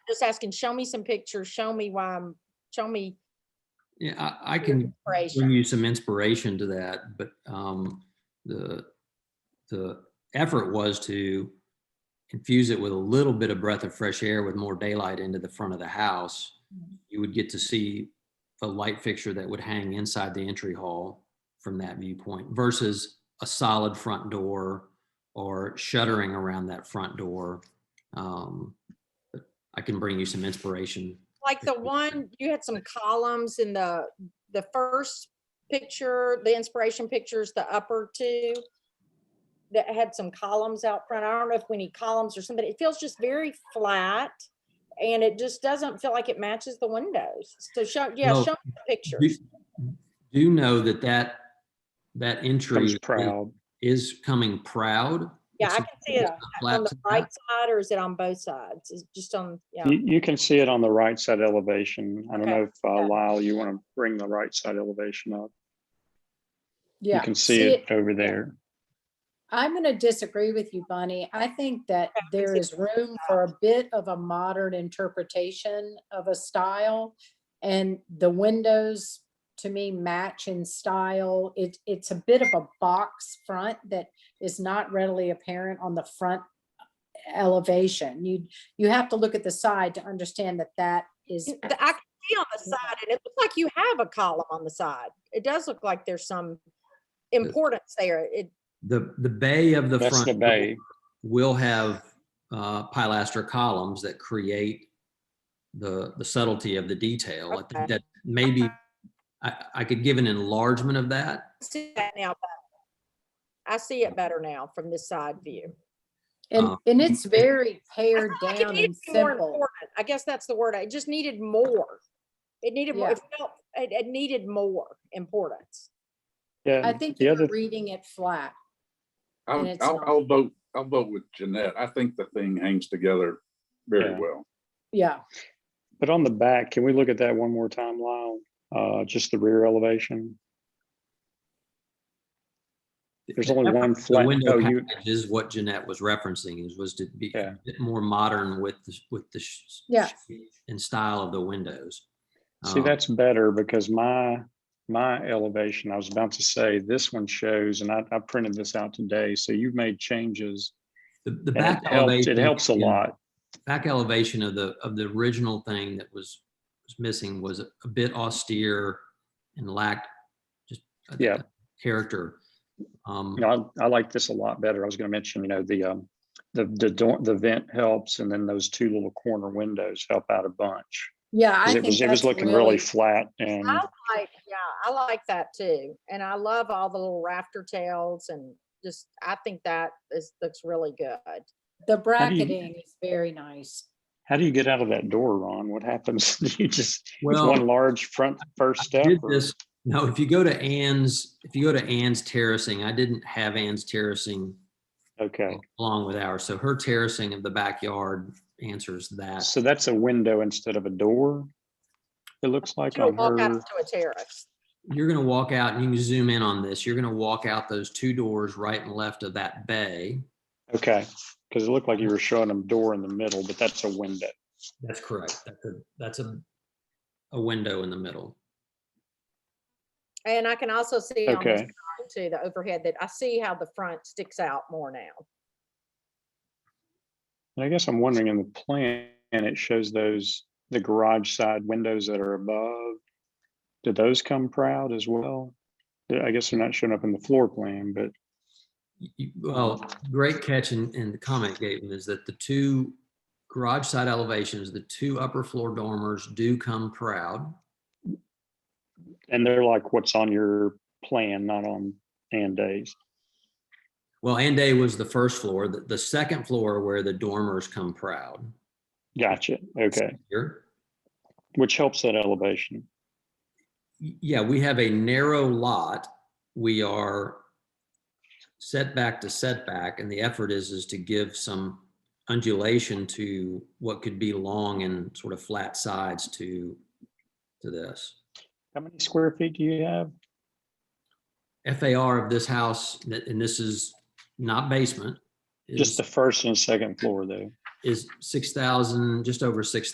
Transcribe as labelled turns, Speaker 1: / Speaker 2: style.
Speaker 1: just asking, show me some pictures, show me why I'm, show me
Speaker 2: Yeah, I, I
Speaker 1: your
Speaker 2: can bring
Speaker 1: inspiration.
Speaker 2: you some inspiration to that, but um, the, the effort was to infuse it with a little bit of breath of fresh air with more daylight into the front of the house.
Speaker 1: Mm-hmm.
Speaker 2: You would get to see a light fixture that would hang inside the entry hall from that viewpoint versus a solid front door or shuttering around that front door. Um, but I can bring you some inspiration.
Speaker 1: Like the one, you had some columns in the, the first picture, the inspiration pictures, the upper two that had some columns out front. I don't know if we need columns or something. It feels just very flat. And it just doesn't feel like it matches the windows. So show, yeah,
Speaker 2: Well,
Speaker 1: show me the pictures.
Speaker 2: Do do know that that, that entry
Speaker 3: comes proud.
Speaker 2: is coming proud.
Speaker 1: Yeah, I
Speaker 2: it's-
Speaker 1: can see it on
Speaker 2: flat
Speaker 1: the
Speaker 2: top.
Speaker 1: right side or is it on both sides? Is it just on, yeah.
Speaker 3: You, you can see it on the right side elevation. I don't
Speaker 1: Okay,
Speaker 3: know if uh,
Speaker 1: yeah.
Speaker 3: Lyle, you want to bring the right side elevation up. You
Speaker 4: Yeah.
Speaker 3: can see it over there.
Speaker 4: I'm going to disagree with you, Bonnie. I think that there is room for a bit of a modern interpretation of a style. And the windows, to me, match in style. It, it's a bit of a box front that is not readily apparent on the front uh, elevation. You, you have to look at the side to understand that that is,
Speaker 1: You- the- I can see on the side and it looks like you have a column on the side. It does look like there's some importance there. It,
Speaker 2: The, the bay of the
Speaker 3: That's
Speaker 2: front.
Speaker 3: the bay.
Speaker 2: door Will have uh, pilaster columns that create the, the subtlety of the detail. I
Speaker 1: Okay.
Speaker 2: think that maybe, I, I could give an enlargement of that.
Speaker 1: see that now. better. I see it better now from this side view.
Speaker 4: and,
Speaker 2: Um,
Speaker 4: and
Speaker 3: Uh,
Speaker 4: it's very
Speaker 1: I
Speaker 4: pared
Speaker 1: felt like it
Speaker 4: down
Speaker 1: needed
Speaker 4: and
Speaker 1: to be more
Speaker 4: simple.
Speaker 1: important. I guess that's the word. It just needed more. It needed more,
Speaker 4: Yeah.
Speaker 1: it felt, it, it needed more importance.
Speaker 4: I
Speaker 3: Yeah,
Speaker 4: think
Speaker 3: the
Speaker 4: you're
Speaker 3: other,
Speaker 4: reading it flat. and
Speaker 5: I'll,
Speaker 4: it's
Speaker 5: I'll,
Speaker 4: not-
Speaker 5: I'll vote, I'll vote with Jeanette. I think the thing hangs together very
Speaker 3: Yeah.
Speaker 5: well.
Speaker 4: Yeah.
Speaker 3: but on the back, can we look at that one more time, Lyle? Uh, just the rear elevation. There's only one
Speaker 2: The
Speaker 3: flat.
Speaker 2: window
Speaker 3: oh, you-
Speaker 2: package is what Jeanette was referencing is, was to be a
Speaker 3: Yeah.
Speaker 2: bit more modern with, the with the. sh-
Speaker 4: Yeah.
Speaker 2: shape And style of the windows.
Speaker 3: See,
Speaker 2: Um,
Speaker 3: that's better because my, my elevation, I was about to say, this one shows, and I, I printed this out today, so you've made changes.
Speaker 2: The, the
Speaker 3: and
Speaker 2: back
Speaker 3: It helps,
Speaker 2: elevation.
Speaker 3: it helps a
Speaker 2: yeah,
Speaker 3: lot.
Speaker 2: Back elevation of the, of the original thing that was, was missing was a a bit austere and lacked just. a-
Speaker 3: Yeah.
Speaker 2: a Character. Um,
Speaker 3: You know, I, I like this a lot better. I was gonna mention, you know, the, um, the, the door, the vent helps, and then those two little corner windows help out a bunch.
Speaker 4: Yeah,
Speaker 3: 'Cause
Speaker 4: I
Speaker 3: It
Speaker 4: think
Speaker 3: was, it was
Speaker 4: that's
Speaker 3: looking really flat and,
Speaker 1: I like, yeah, I like that too. And I love all the little rafter tails and just, I think that is, looks really good.
Speaker 3: do
Speaker 4: The
Speaker 3: you-
Speaker 4: bracketing is very nice.
Speaker 3: how do you get out of that door, Ron? What happens? Do You just, it's
Speaker 2: Well,
Speaker 3: one large front, first
Speaker 2: I
Speaker 3: step?
Speaker 2: did
Speaker 3: or-
Speaker 2: this- No, if you go to Ann's, if you go to Ann's terracing, I didn't have Ann's terracing
Speaker 3: Okay,
Speaker 2: along with ours. So her terracing of the backyard answers that.
Speaker 3: so that's a window instead of a door? It looks like
Speaker 1: You'll
Speaker 3: on
Speaker 1: walk out
Speaker 3: her,
Speaker 1: to a terrace.
Speaker 2: You're gonna walk out and you can zoom in on this. You're gonna walk out those two doors right and left of that bay.
Speaker 3: okay, because it looked like you were showing them door in the middle, but that's a window.
Speaker 2: That's correct. That's a, that's a, a window in the middle.
Speaker 1: And I can also see on this
Speaker 3: Okay,
Speaker 1: drawing too, the overhead that I see how the front sticks out more now.
Speaker 3: and I guess I'm wondering in the plan, and it shows those, the garage side windows that are above. Do those come proud as well? Yeah, I guess they're not showing up in the floor plan, but
Speaker 2: Y- y- Well, great catch and, and the comment, Gaten, is that the two garage side elevations, the two upper floor dormers do come proud.
Speaker 3: and they're like what's on your plan, not on and days.
Speaker 2: Well, Ande was the first floor, the, the second floor where the dormers come proud.
Speaker 3: Gotcha, okay,
Speaker 2: Here.
Speaker 3: which helps that elevation.
Speaker 2: Y- Yeah, we have a narrow lot. We are setback to setback, and the effort is, is to give some undulation to what could be long and sort of flat sides to, to this.
Speaker 3: How many square feet do you have?
Speaker 2: FAR of this house, th- and this is not basement,
Speaker 3: Just
Speaker 2: is,
Speaker 3: the first and second floor though.
Speaker 2: is 6,000, just over 6,000.